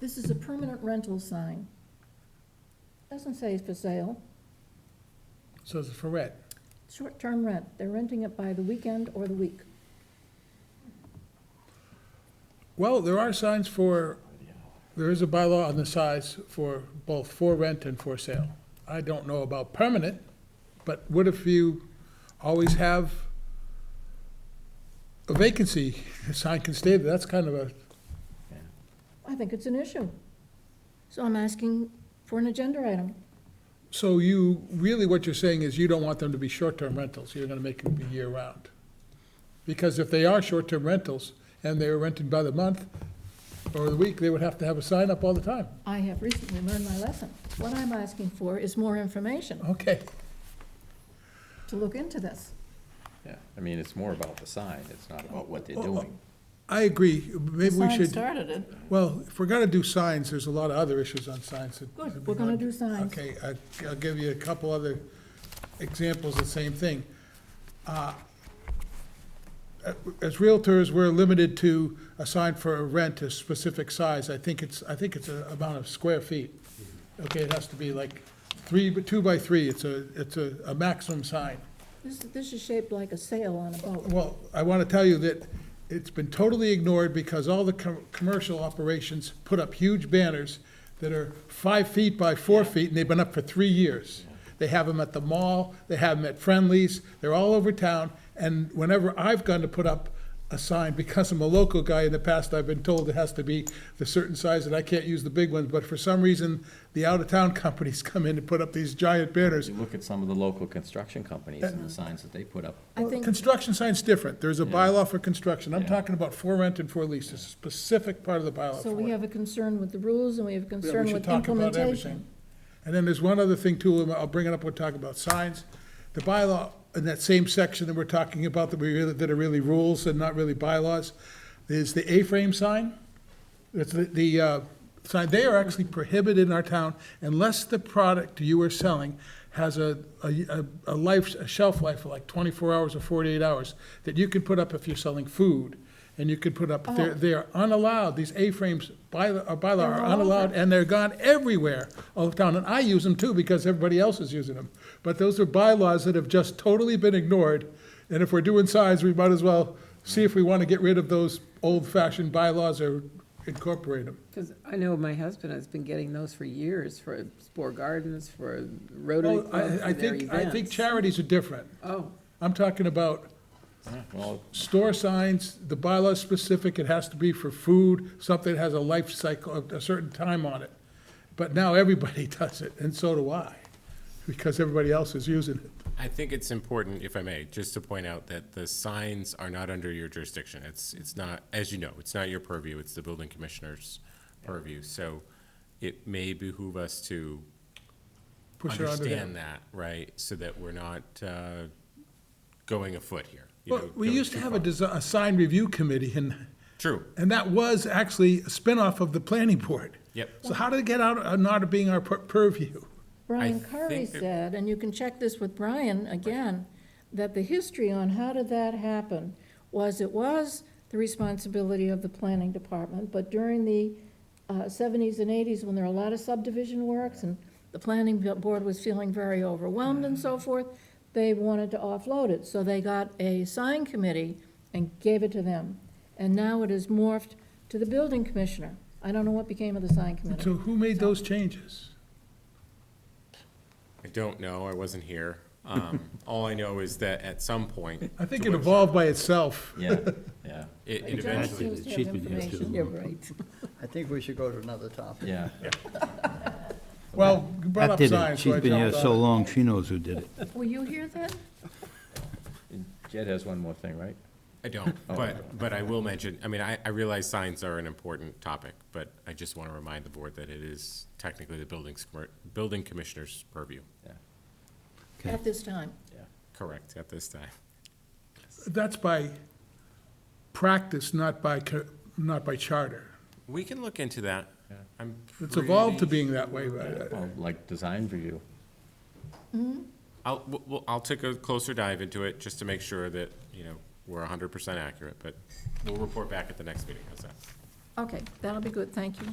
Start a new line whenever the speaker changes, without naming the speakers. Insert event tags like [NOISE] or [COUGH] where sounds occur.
This is a permanent rental sign. Doesn't say for sale,
So it's for rent.
short-term rent. They're renting it by the weekend or the week.
Well, there are signs for, there is a bylaw on the size for both for rent and for sale. I don't know about permanent, but what if you always have a vacancy, the sign can stay there, that's kind of a,
I think it's an issue. So I'm asking for an agenda item.
so you, really what you're saying is you don't want them to be short-term rentals, you're gonna make them be year-round. Because if they are short-term rentals, and they're rented by the month or the week, they would have to have a sign up all the time.
I have recently learned my lesson. What I'm asking for is more information
Okay.
to look into this.
Yeah, I mean, it's more about the sign, it's not about what they're
Oh, oh.
doing.
I agree, maybe we
Sign
should,
started it.
well, if we're gonna do signs, there's a lot of other issues on signs that.
Good, we're gonna do signs.
Okay, I- I'll give you a couple other examples, of the same thing. Uh, As realtors, we're limited to a sign for a rent, a specific size, I think it's, I think it's a amount of square feet. Okay, it has to be like three, two by three, it's a, it's a a maximum sign.
This, this is shaped like a sail on a boat.
Well, I want to tell you that it's been totally ignored because all the com- commercial operations put up huge banners that are five feet by four feet, and they've been up for three years. They have them at the mall, they have them at Friendly's, they're all over town, and whenever I've gone to put up a sign, because I'm a local guy in the past, I've been told it has to be the certain size, and I can't use the big ones, but for some reason, the out-of-town [LAUGHS] companies come in and put up these giant banners,
You look at some of the local construction companies and the signs that they put up.
I think,
Construction sign's different. There's a bylaw for construction. I'm
Yeah.
talking about for rent and for lease. It's a specific part of the bylaw
so
for
we
it.
have a concern with the rules and we have a
Yeah, we
concern
should
with
talk about everything.
implementation.
And then there's one other thing too, and I'll bring it up when we talk about signs. The bylaw, in that same section that we're talking about, that we really, that are really rules and not really bylaws, is the A-frame sign. It's the, the, uh, sign, they are actually prohibited in our town unless the product you are selling has a, a, a life, a shelf life of like twenty-four hours or forty-eight hours that you can put up if you're selling food. And you can put up, they're, they're unallowed, these A-frames by, uh, bylaw are unallowed and they're gone everywhere all over town. And I use them too because everybody else is using them. But those are bylaws that have just totally been ignored. And if we're doing signs, we might as well see if we want to get rid of those old-fashioned bylaws or incorporate them.
Because I know my husband has been getting those for years, for Spore Gardens, for Rotary
Well,
Club,
I, I
for their
think, I think
events.
charities are different.
Oh,
I'm talking about
Yeah, [LAUGHS] Well,
store signs, the bylaw's specific, it has to be for food, something that has a life cycle, a- a certain time on it. But now everybody [LAUGHS] does it, and so do I, because everybody else is using it.
I think it's important, if I may, just to point out that the signs are not under your jurisdiction. It's, it's not, as you know, it's not your purview, it's the building commissioner's purview. So it may behoove us to
Push it onto them.
understand that, right? So that we're not uh, going afoot here. you
Well,
know,
we
going
used to
too
have a,
far.
desi- a sign review committee, and,
True,
and that was actually a spinoff of the planning board.
Yep.
So how did it get out, uh, not being our pur- purview?
Brian
I
Curry
think it-
said, and you can check this with Brian again, that the history on how did that happen was it was the responsibility of the planning department, but during the uh, seventies and eighties, when there were a lot of subdivision works and the planning board was feeling very overwhelmed and
Mm-hmm.
so forth, they wanted to offload it, so they got a sign committee and gave it to them. And now it is morphed to the building commissioner. I don't know what became of the sign committee.
So who made those changes?
I don't know, I wasn't here.
[LAUGHS]
Um, All I know is that at some point,
I think it evolved by itself.
yeah, yeah,
it it
It does
eventually,
seem to have information.
yeah, right.
I think we should go to another topic.
yeah.
Well, you brought
That
up
did it.
science, so I
She's been here
jumped on
so
it.
long, she knows who did it.
Were you here then?
And Jed has one more thing, right?
I don't,
Oh,
but, but I will mention, I mean, I, I realize signs are an important topic, but I just want to remind the board that it is technically the building's, commer- building commissioner's purview.
Okay.
At this time.
Correct, at this time.
That's by practice, not by, co- not by charter.
We can look into that. I'm
It's evolved to
pretty-
being that way, but uh,
Well, Like design review.
I'll, we'll- we'll, I'll take a closer dive into it, just to make sure that, you know, we're hundred percent accurate, but we'll report back at the next meeting, how's that?
Okay, that'll be good, thank you.